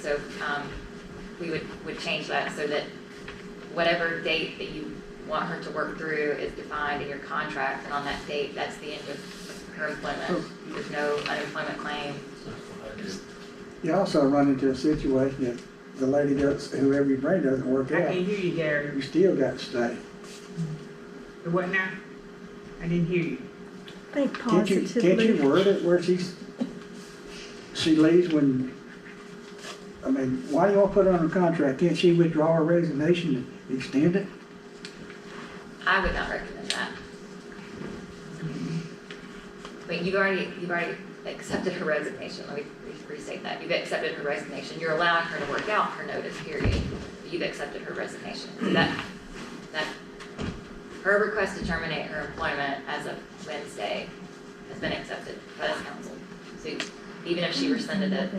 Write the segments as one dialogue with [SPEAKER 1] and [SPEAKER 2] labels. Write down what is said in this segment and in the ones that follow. [SPEAKER 1] So um, we would, would change that so that whatever date that you want her to work through is defined in your contract, and on that date, that's the end of her employment. There's no unemployment claim.
[SPEAKER 2] You also run into a situation if the lady does, whoever you bring doesn't work
[SPEAKER 3] I
[SPEAKER 2] out,
[SPEAKER 3] can't hear you, Gary.
[SPEAKER 2] you still got to stay.
[SPEAKER 3] The What now? I didn't hear you.
[SPEAKER 4] Think
[SPEAKER 2] Can't you,
[SPEAKER 4] positively.
[SPEAKER 2] can't you word it where she's, she leaves when, I mean, why do y'all put her on a contract? Can't she withdraw her resignation and extend it?
[SPEAKER 1] I would not recommend that. But you've already, you've already accepted her resignation, let me re- restate that, you've accepted her resignation, you're allowing her to work out her notice period, you've accepted her resignation, so that, that, her request to terminate her employment as of Wednesday has been accepted by this council. So even if she rescinded it,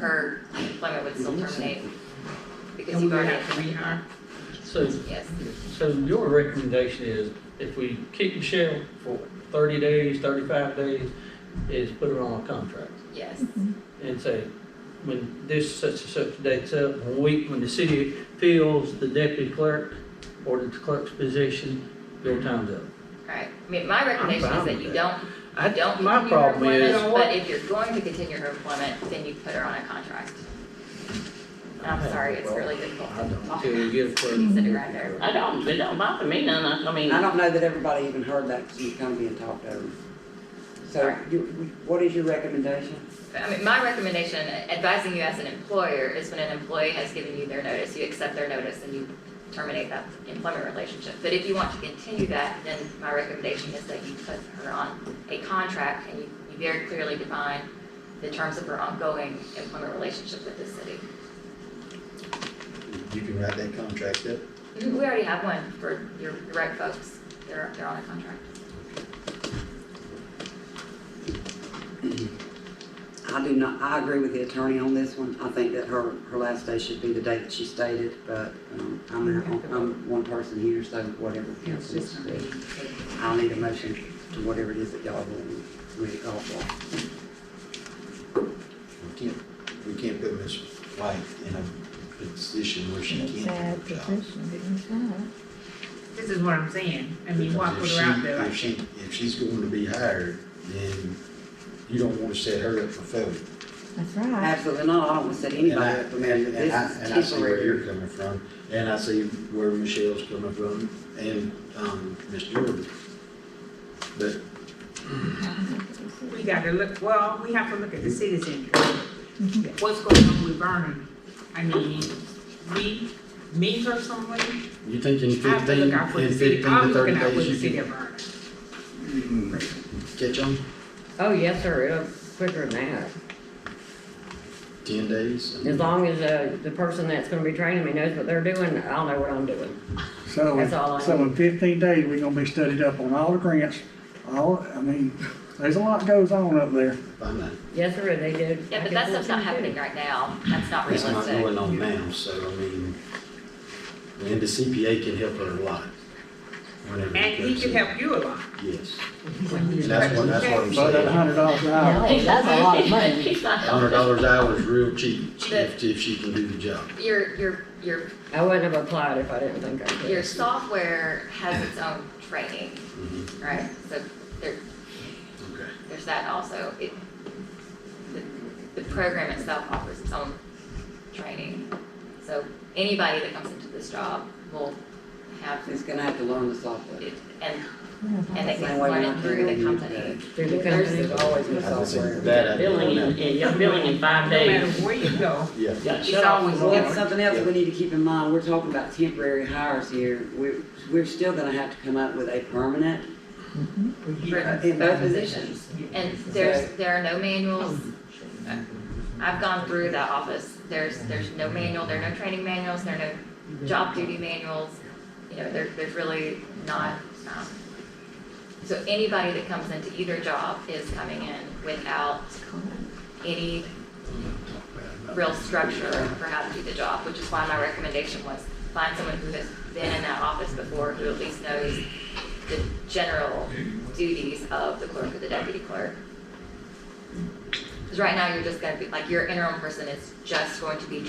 [SPEAKER 1] her employment would still terminate, because you've
[SPEAKER 3] And we would
[SPEAKER 1] already,
[SPEAKER 3] have to rehire.
[SPEAKER 5] So,
[SPEAKER 1] yes,
[SPEAKER 5] so your recommendation is if we keep Michelle for thirty days, thirty-five days, is put her on a contract
[SPEAKER 1] yes,
[SPEAKER 5] and say, when this such and such date's up, when we, when the city fills the deputy clerk or the clerk's position, your time's up.
[SPEAKER 1] right. I mean, my recommendation is
[SPEAKER 5] fine
[SPEAKER 1] that
[SPEAKER 5] with
[SPEAKER 1] you
[SPEAKER 5] that.
[SPEAKER 1] don't
[SPEAKER 5] I,
[SPEAKER 1] don't
[SPEAKER 5] my
[SPEAKER 1] continue her
[SPEAKER 5] problem is,
[SPEAKER 1] employment, but if you're going to continue her employment, then you put her on a contract. And I'm sorry, it's really difficult
[SPEAKER 5] I
[SPEAKER 1] to
[SPEAKER 5] don't,
[SPEAKER 1] talk,
[SPEAKER 5] till we get a
[SPEAKER 1] to
[SPEAKER 5] clerk.
[SPEAKER 1] sit around there.
[SPEAKER 6] I don't, it don't bother me none, I- I mean,
[SPEAKER 7] I don't know that everybody even heard that, because it's kind of being talked over. So
[SPEAKER 1] Right.
[SPEAKER 7] you, what is your recommendation?
[SPEAKER 1] I mean, my recommendation, advising you as an employer, is when an employee has given you their notice, you accept their notice and you terminate that employment relationship. But if you want to continue that, then my recommendation is that you put her on a contract and you, you very clearly define the terms of her ongoing employment relationship with this city.
[SPEAKER 8] You can write that contract up.
[SPEAKER 1] We already have one for your direct folks. They're, they're on a contract.
[SPEAKER 7] I do not, I agree with the attorney on this one. I think that her, her last day should be the date that she stated, but, um, I'm, out- I'm one person here, so whatever
[SPEAKER 3] It's
[SPEAKER 7] council wants
[SPEAKER 3] just
[SPEAKER 7] to
[SPEAKER 3] not
[SPEAKER 7] do.
[SPEAKER 3] being taken.
[SPEAKER 7] I'll need a motion to whatever it is that y'all want me to call for.
[SPEAKER 8] We can't, we can't put Ms. White in a position where she can't
[SPEAKER 4] Sad
[SPEAKER 8] do her job.
[SPEAKER 4] position, didn't you?
[SPEAKER 3] This is what I'm saying. I mean, why put
[SPEAKER 8] Because if
[SPEAKER 3] her out
[SPEAKER 8] she-
[SPEAKER 3] there like
[SPEAKER 8] If she, if she's going to be hired, then you don't want to set her up for failure.
[SPEAKER 4] That's right.
[SPEAKER 7] Absolutely not. I don't want to set
[SPEAKER 8] And I,
[SPEAKER 7] anybody up for marriage.
[SPEAKER 8] and I,
[SPEAKER 7] This
[SPEAKER 8] and I
[SPEAKER 7] is
[SPEAKER 8] see where you're
[SPEAKER 7] temporary.
[SPEAKER 8] coming from, and I see where Michelle's coming from, and, um, Ms. Jordan. But
[SPEAKER 3] We gotta look, well, we have to look at
[SPEAKER 8] Mm-hmm.
[SPEAKER 3] the city's interest. What's going on with Vernon? I mean, we, me personally,
[SPEAKER 8] you think in
[SPEAKER 3] I have to
[SPEAKER 8] fifteen,
[SPEAKER 3] look out for the
[SPEAKER 8] in
[SPEAKER 3] city. I'm
[SPEAKER 8] fifteen to
[SPEAKER 3] looking
[SPEAKER 8] thirty
[SPEAKER 3] out for the
[SPEAKER 8] days,
[SPEAKER 3] city
[SPEAKER 8] you
[SPEAKER 3] of Vernon.
[SPEAKER 8] can catch them?
[SPEAKER 6] oh, yes, sir, it'll quicker than that.
[SPEAKER 8] Ten days?
[SPEAKER 6] As long as, uh, the person that's gonna be training me knows what they're doing, I'll know what I'm doing.
[SPEAKER 2] So, in-
[SPEAKER 6] That's all I
[SPEAKER 2] so in fifteen days, we're gonna be studied up on all the grants, all, I mean, there's a lot goes on up there.
[SPEAKER 8] I know.
[SPEAKER 6] Yes, sir, they do.
[SPEAKER 1] Yeah, but that stuff's not happening right now. That's not
[SPEAKER 8] It's not going
[SPEAKER 1] realistic.
[SPEAKER 8] on now, so I mean, and the CPA can help her a lot. whenever it
[SPEAKER 3] And he
[SPEAKER 8] comes
[SPEAKER 3] can
[SPEAKER 8] in.
[SPEAKER 3] help you a lot.
[SPEAKER 8] Yes. And that's what, that's what I'm
[SPEAKER 2] About that
[SPEAKER 8] saying.
[SPEAKER 2] hundred dollars an hour,
[SPEAKER 1] that's a lot of money.
[SPEAKER 8] Hundred dollars an hour is real cheap if, if she can do the job.
[SPEAKER 1] Your, your, your,
[SPEAKER 6] I wouldn't have applied if I didn't think I could.
[SPEAKER 1] your software has its own training,
[SPEAKER 8] Mhm.
[SPEAKER 1] right? So there,
[SPEAKER 8] Okay.
[SPEAKER 1] there's that also. It, the, the program itself offers its own training. So anybody that comes into this job will have,
[SPEAKER 7] It's gonna have to learn the software.
[SPEAKER 1] it- and,
[SPEAKER 4] Yeah.
[SPEAKER 1] and they
[SPEAKER 7] Same
[SPEAKER 1] can learn
[SPEAKER 7] way we're
[SPEAKER 1] it
[SPEAKER 7] not
[SPEAKER 1] through the
[SPEAKER 7] doing it
[SPEAKER 1] company.
[SPEAKER 6] Through the company's always with
[SPEAKER 8] I was saying
[SPEAKER 6] software.
[SPEAKER 8] that I didn't
[SPEAKER 6] Billing,
[SPEAKER 8] know.
[SPEAKER 6] in- and you're billing in
[SPEAKER 3] No
[SPEAKER 6] five
[SPEAKER 3] matter
[SPEAKER 6] days.
[SPEAKER 3] where you go,
[SPEAKER 8] Yeah.
[SPEAKER 6] Yeah,
[SPEAKER 3] it's
[SPEAKER 6] shut off
[SPEAKER 3] always
[SPEAKER 6] the
[SPEAKER 7] Well,
[SPEAKER 6] water.
[SPEAKER 7] that's something else we need to keep in mind, we're talking about temporary hires here, we're, we're still gonna have to come up with a permanent
[SPEAKER 1] For-
[SPEAKER 7] in
[SPEAKER 1] both
[SPEAKER 7] both
[SPEAKER 1] positions.
[SPEAKER 7] positions.
[SPEAKER 1] And there's, there are no manuals. I've gone through that office. There's, there's no manual, there are no training manuals, there are no job duty manuals. You know, there, there's really not, um, so anybody that comes into either job is coming in without any real structure for how to do the job, which is why my recommendation was find someone who has been in that office before, who at least knows the general duties of the clerk or the deputy clerk. Because right now, you're just gonna be, like, your interim person is just going to be